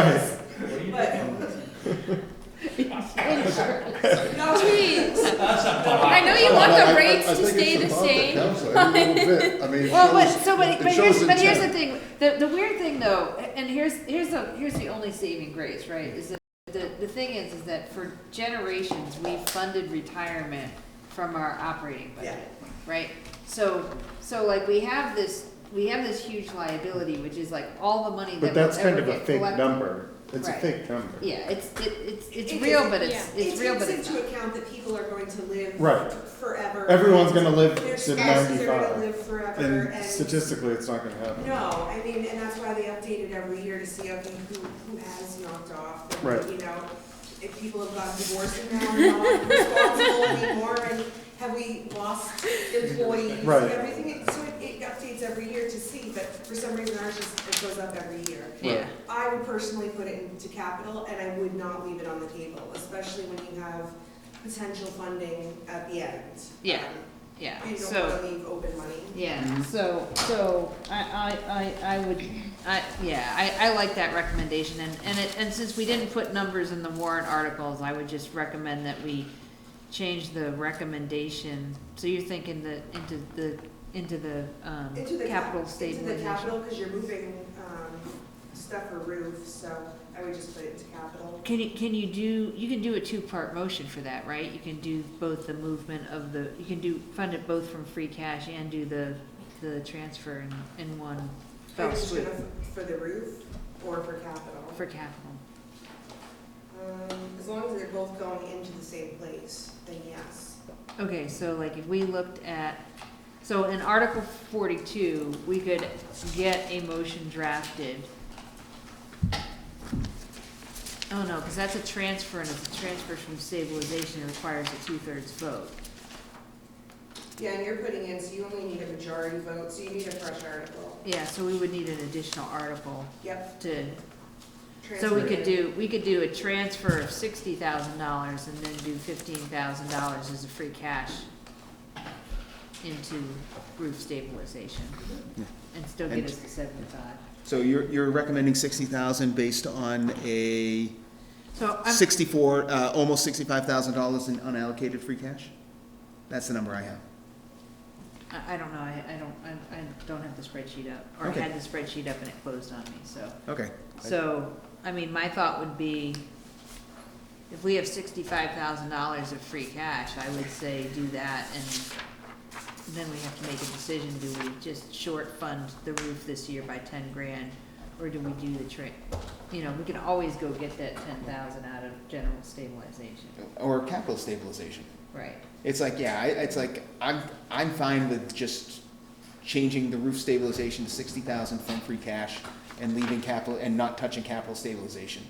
Right. What are you But- doing? No, geez. That's not I know you Well, want I- I- the rates I to think stay it's the about same. council, every little bit. I mean, it Well, but, shows- so, but, it but here's, shows but here's the intent. thing, the, the weird thing though, and here's, here's the, here's the only saving grace, right, is that, the, the thing is, is that for generations, we funded retirement from our operating budget, right? So, so like, we have this, we have this huge liability, which is like all the money But that we'll that's kind ever of a get fake collected. number. It's a Right. fake number. Yeah, it's, it, it's, it's It real, is- but it's, It it's real, but takes it's not. into account that people are going to live. Right. Forever. Everyone's gonna live Their to spouses are gonna live ninety-five. forever And and. statistically, it's not gonna happen. No, I mean, and that's why they update it every year to see, okay, who, who has knocked off. and, Right. You know, if people have gotten divorced and now are not responsible anymore, and have we lost employees and Right. everything? It- So it, it updates every year to see, but for some reason ours just, it goes up every year. Yeah, I would personally put it into capital, and I would not leave it on the table, especially when you have potential funding at the end. Yeah, Um, yeah, You don't so. want to leave open money. Yeah, so, so, I, I, I, I would, I, yeah, I, I like that recommendation, and, and it, and since we didn't put numbers in the warrant articles, I would just recommend that we change the recommendation, so you're thinking that, into the, into the, um, Into the cap- capital Into the stabilization. capital, because you're moving um, stuff or roof, so I would just put it into capital. Can you, can you do, you can do a two-part motion for that, right? You can do both the movement of the, you can do, fund it both from free cash and do the, the transfer in, in one Are you fell just swoop, gonna f- For the roof or for capital? for capital. Um, As long as they're both going into the same place, then yes. Okay, so like if we looked at, so in Article forty-two, we could get a motion drafted. Oh, no, because that's a transfer, and if it transfers from stabilization, it requires a two-thirds vote. Yeah, and you're putting in, so you only need a majority vote, so you need a fresh article. Yeah, so we would need an additional article Yep. to, so transfer we it could in. do, we could do a transfer of sixty thousand dollars and then do fifteen thousand dollars as a free cash into roof stabilization, and still get And- us to seventy-five. So you're, you're recommending sixty thousand based on a So I'm, sixty-four, uh, almost sixty-five thousand dollars in unallocated free cash? That's the number I have. I, I don't know, I, I don't, I, I don't have the spreadsheet up, or Okay. had the spreadsheet up and it closed on me, so. Okay. So, I mean, my thought would be, if we have sixty-five thousand dollars of free cash, I would say do that and then we have to make a decision, do we just short fund the roof this year by ten grand? Or do we do the tra, you know, we can always go get that ten thousand out of general stabilization, Or capital stabilization. right? It's like, yeah, I, it's like, I'm, I'm fine with just changing the roof stabilization to sixty thousand from free cash and leaving capital, and not touching capital stabilization.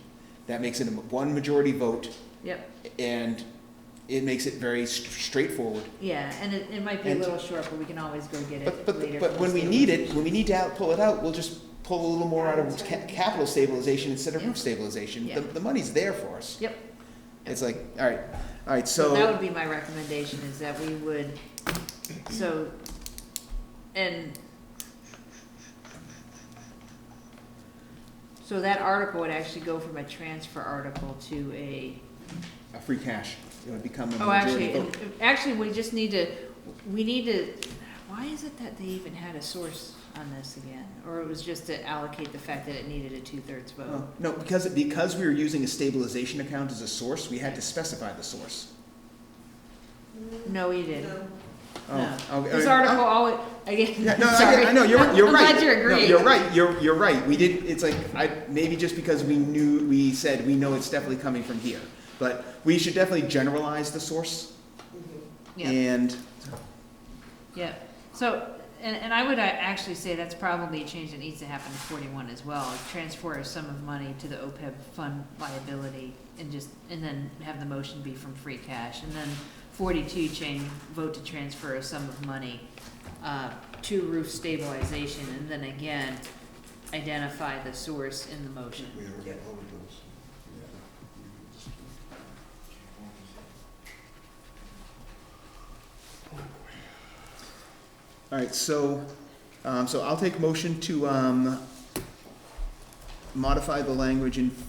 That makes it a m- one majority vote, Yep, and it makes it very s- straightforward. yeah, and it, it might be a And- little short, but we can always go get But, it later. but, but from when we need it, stabilization. when we need to out, pull it out, we'll just pull a little more out of ca- capital stabilization instead of Yeah. roof stabilization. Yeah. The, the money's there for us. Yep. It's like, all right, all right, So that so, would be my recommendation, is that we would, so, and. So that article would actually go from a transfer article to a, a free cash, it would become a oh, majority actually, vote. and- actually, we just need to, we need to, why is it that they even had a source on this again? Or it was just to allocate the fact that it needed a two-thirds vote? Oh, No, because, because we were using a stabilization account as a source, we had to specify the source. Mm, No, you didn't. No. Oh, No. okay, This all right. article always, Yeah, again, no, I, sorry. get- I know, you're, you're I'm right. glad you're No, agreeing. You're right, you're, you're right, we did, it's like, I, maybe just because we knew, we said, we know it's definitely coming from here. But we should definitely generalize the source Mhm. Yeah. and Yeah, so, and, and I would uh, actually say that's probably a change that needs to happen in forty-one as well, is transfer a sum of money to the OPEB fund liability and just, and then have the motion be from free cash, and then forty-two change, vote to transfer a sum of money, uh, to roof stabilization, and then again, identify the source in the motion. All right, so, um, so I'll take motion to, um, modify the language in